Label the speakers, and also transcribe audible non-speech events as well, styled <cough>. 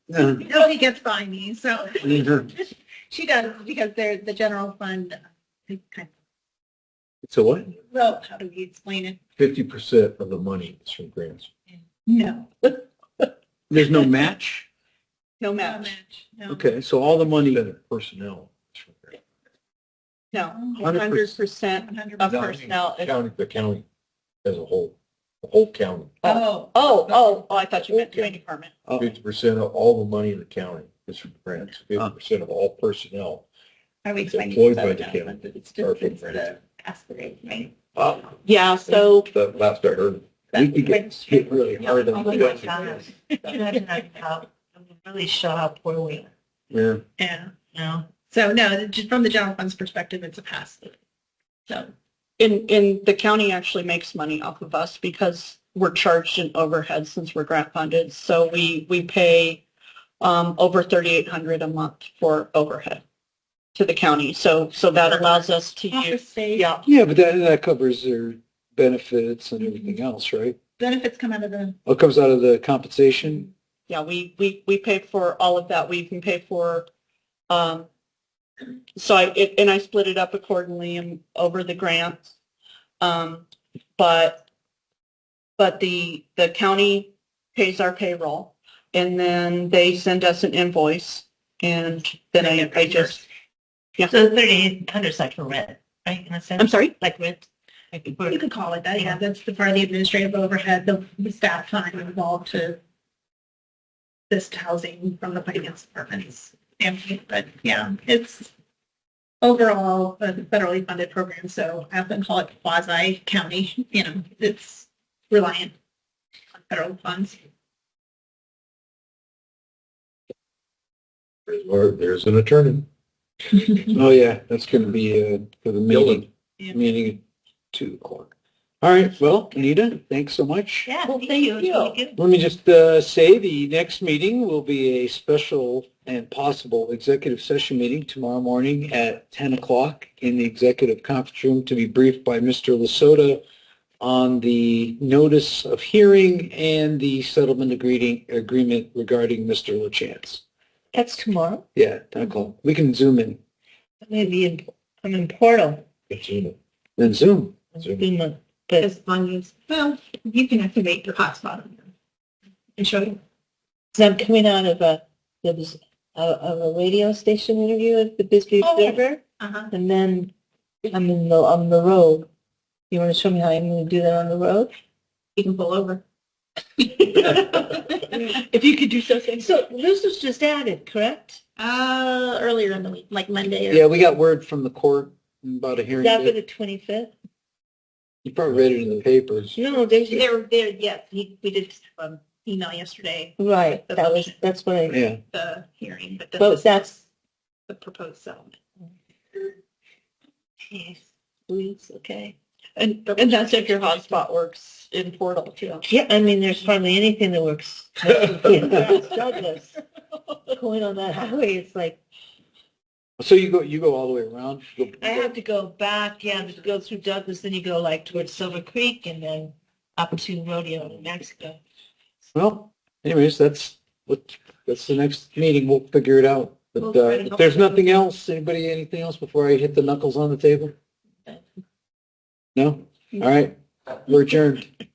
Speaker 1: Nobody gets by me, so
Speaker 2: It's
Speaker 1: she does because they're the general fund. they kind
Speaker 2: a what?
Speaker 1: of- Well, how do we explain it?
Speaker 2: Fifty percent of the money is from grants.
Speaker 1: No,
Speaker 2: There's no match?
Speaker 1: no match. No,
Speaker 2: Okay, so all the money. Personnel.
Speaker 1: no,
Speaker 2: Hundred
Speaker 1: hundred percent of personnel. is-
Speaker 2: County, the county as a whole, the whole county.
Speaker 1: Oh, oh, oh, oh, I thought you meant doing department.
Speaker 2: Fifty percent of all the money in the county is from grants. Fifty percent of all personnel.
Speaker 1: Are we
Speaker 2: It's
Speaker 1: explaining?
Speaker 2: employed
Speaker 1: this
Speaker 2: by the
Speaker 1: as a
Speaker 2: county.
Speaker 1: government, but It's
Speaker 2: Or
Speaker 1: just,
Speaker 2: from
Speaker 1: it's the
Speaker 2: grants.
Speaker 1: aspirate, right?
Speaker 2: Uh,
Speaker 1: Yeah, so.
Speaker 2: That last I heard. We could get hit really hard on
Speaker 1: Oh my
Speaker 2: that.
Speaker 1: gosh.
Speaker 3: really show how poor we are,
Speaker 2: Yeah.
Speaker 1: <laughs> Yeah,
Speaker 3: you know?
Speaker 1: so no, just from the general fund's perspective, it's a pass. So,
Speaker 3: And, and the county actually makes money off of us because we're charged in overhead since we're grant funded. So we, we pay, um, over thirty-eight hundred a month for overhead to the county. So, so that allows us to use,
Speaker 1: office space,
Speaker 3: yeah,
Speaker 2: Yeah, but that, that covers their benefits and everything else, right?
Speaker 1: benefits come out of the,
Speaker 2: What comes out of the compensation?
Speaker 3: yeah, we, we, we pay for all of that. We can pay for, um, so I, it, and I split it up accordingly and over the grants. Um, but, but the, the county pays our payroll and then they send us an invoice and then I, I just,
Speaker 4: So thirty hundred's like for rent, right? In a sense,
Speaker 3: I'm sorry?
Speaker 4: like rent. Like
Speaker 1: you
Speaker 4: for-
Speaker 1: could call it that, yeah, that's the part of the administrative overhead, the the staff time involved to this housing from the finance department's standpoint, but yeah, it's overall a federally funded program, so I often call it quasi-county, you know, it's reliant on federal funds.
Speaker 2: Or there's an attorney. Oh, yeah, that's going to be uh, for the meeting,
Speaker 1: Yeah.
Speaker 2: meeting at two o'clock. All right, well, Anita, thanks so much.
Speaker 4: Yeah,
Speaker 3: Well,
Speaker 4: thank
Speaker 3: thank
Speaker 4: you. It's
Speaker 3: you.
Speaker 4: really good.
Speaker 2: Let me just uh, say, the next meeting will be a special and possible executive session meeting tomorrow morning at 10 o'clock in the executive conference room to be briefed by Mr. Lasota on the notice of hearing and the settlement agreeing- agreement regarding Mr. LaChance.
Speaker 4: That's tomorrow.
Speaker 2: Yeah, 10 o'clock. We can zoom in.
Speaker 4: I'm gonna be in, I'm in um, Portal.
Speaker 2: Then Zoom.
Speaker 4: Zoom in, But
Speaker 1: As long as, well, you can activate your hotspot on them and show them.
Speaker 4: so I'm coming out of a, there was a, of a radio station interview at the Bisbee
Speaker 1: Oh.
Speaker 4: Observer.
Speaker 1: Uh-huh.
Speaker 4: And then I'm in the, on the road. You wanna show me how I'm gonna do that on the road?
Speaker 1: You can pull over. <laughs>
Speaker 3: if you could do
Speaker 4: <laughs>
Speaker 3: something.
Speaker 4: So this was just added, correct?
Speaker 1: Uh, earlier in the week, like Monday or
Speaker 2: Yeah, we got word from the court about a hearing.
Speaker 4: Is that for
Speaker 2: date.
Speaker 4: the twenty-fifth?
Speaker 2: You probably read it in the papers.
Speaker 4: No, there's,
Speaker 1: There, there, yes, he, we did um, email yesterday,
Speaker 4: right, that was, that's what I,
Speaker 2: Yeah.
Speaker 1: the hearing, but this
Speaker 4: but
Speaker 1: is
Speaker 4: that's,
Speaker 1: the proposed settlement.
Speaker 4: please, okay.
Speaker 3: And, and that's if your hotspot works in Portal too.
Speaker 4: Yeah, I mean, there's hardly anything that
Speaker 3: <laughs>
Speaker 4: works. in Dallas, Douglas. Going on that highway, it's like,
Speaker 2: <laughs> So you go, you go all the way around? You go-
Speaker 4: I have to go back, yeah, to go through Douglas, then you go like towards Silver Creek and then up to Rodeo, New Mexico.
Speaker 2: Well, anyways, that's what, that's the next meeting. We'll figure it out. But uh, if there's nothing else, anybody, anything else before I hit the knuckles on the table? No? All right. We're adjourned.